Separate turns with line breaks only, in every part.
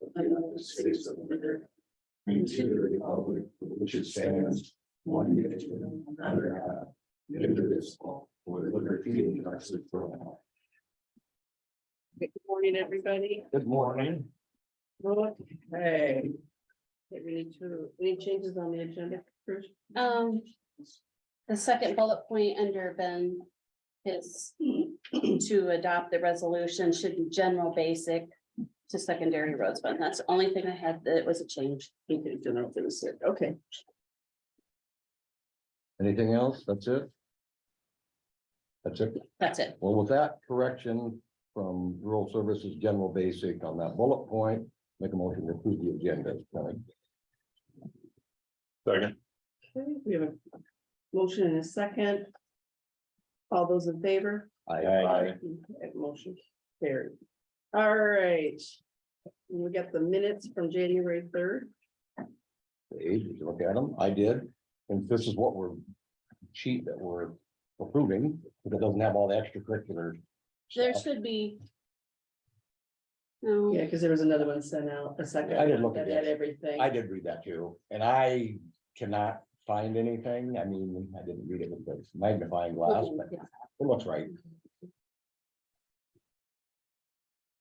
of the states of America. And to the republic for which it stands, one nation, under God, indivisible, with liberty and justice for all.
Good morning, everybody.
Good morning.
Look,
Hey.
get ready to, any changes on the agenda first?
Um, the second bullet point under Ben is to adopt the resolution should be general basic to secondary roads, but that's the only thing I had that was a change.
Okay, general business, okay.
Anything else? That's it? That's it.
That's it.
Well, with that correction from rural services, general basic on that bullet point, make a motion to approve the agenda.
Second.
Okay, We have a motion and a second. All those in favor?
I,
Okay, Motion carried. All right. We got the minutes from January third.
ages, look at them. I did. And this is what we're sheet that we're approving, because it doesn't have all the extracurriculars.
There
stuff.
should be. No,
Yeah, because there was another one sent out a second.
I didn't look at
That had
that.
everything.
I did read that too, and I cannot find anything. I mean, I didn't read it with this magnifying glass, but
yeah.
It looks right.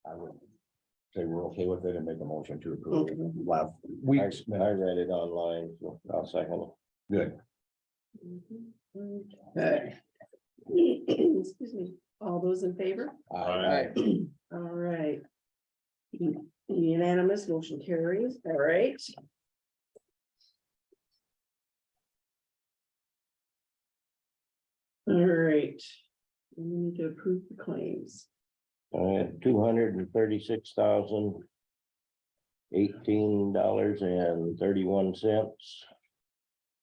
I would say we're okay with it and make a motion to approve. it.
Okay.
Last week's,
I read it online, I'll second
good.
Okay. Excuse me. All those in favor?
I- I-
All right. Unanimous motion carries, all right. All right. We need to approve the claims.
Uh, two hundred and thirty-six thousand eighteen dollars and thirty-one cents.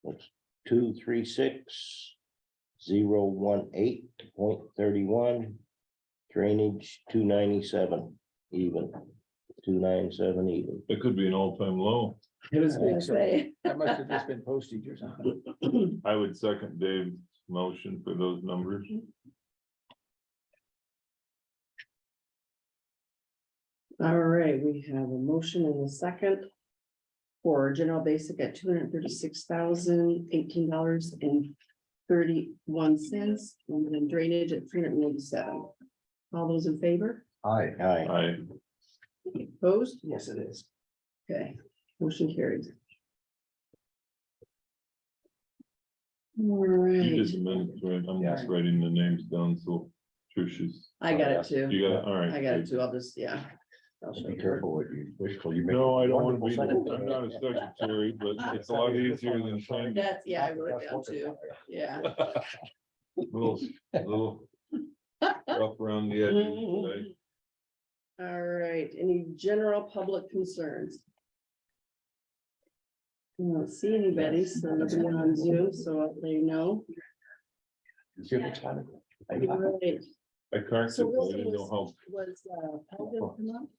That's two, three, six, zero, one, eight, point thirty-one. Drainage, two ninety-seven even, two nine seven even.
It could be an all-time low.
Okay.
That must have just been postage or something.
I would second Dave's motion for those numbers.
All right, we have a motion in the second. For general basic at two hundred thirty-six thousand eighteen dollars and thirty-one cents, and then drainage at three hundred and eighty-seven. All those in favor?
I,
Aye.
I,
Opposed?
Yes, it is.
Okay, motion carries. All right,
you just amended, right? I'm just writing the names down, so Trish's.
I got it too.
You got, all right.
I got it too. I'll just, yeah. I'll show
be
you.
careful what you wish for. You make
No, I don't want to
wonderful
be, I'm
secretary.
not a secretary, but it's a lot easier than trying to,
That's, yeah, I wrote it down too. Yeah.
little, little rough around the edges. right?
All right, any general public concerns? I don't see anybody, so nobody on Zoom, so I'll let you know.
See you next time.
All right,
I can't,
So Wilson
I didn't know how,
Was, uh, Alvin come up?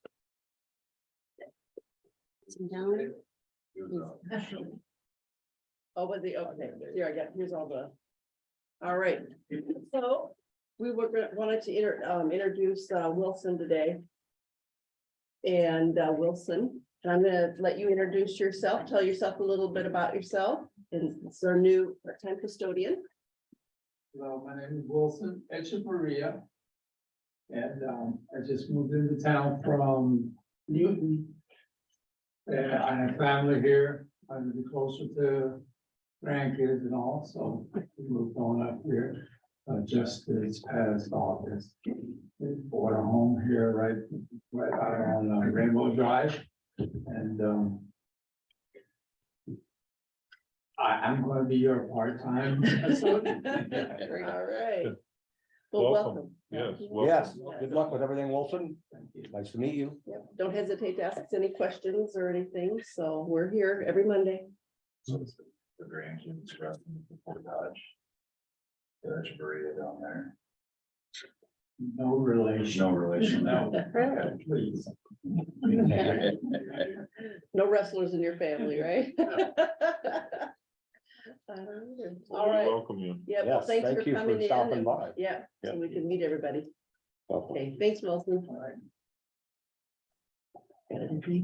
Down.
Oh, was he? Okay, here I got, here's all the. All right, so we were, gonna- wanted to inter, um, introduce uh, Wilson today. And uh, Wilson, and I'm gonna let you introduce yourself, tell yourself a little bit about yourself, and it's our new part-time custodian.
Hello, my name is Wilson Echevarria. And um, I just moved into town from Newton. And I have family here, I'm closer to grandkids and all, so we moved on up here. uh, just this past August. We Bought a home here right, right out on uh, Rainbow Drive and um. I, I'm gonna be your part-time associate.
All right. Well, welcome.
Welcome. yes. welcome.
Yes, good luck with everything, Wilson. Nice to meet you.
Yep, Don't hesitate to ask us any questions or anything, so we're here every Monday.
So it's the- the grandkids resting before Dodge. Dodge Berea down there.
No relation.
No relation.
No.
Okay.
Please.
No wrestlers in your family, right? Uh, All
We
right,
Welcome you.
yeah, well,
Yes,
thanks for
thank you for
coming in.
stopping
and-
by.
Yeah, so we can meet everybody.
Welcome.
Okay, thanks, Wilson.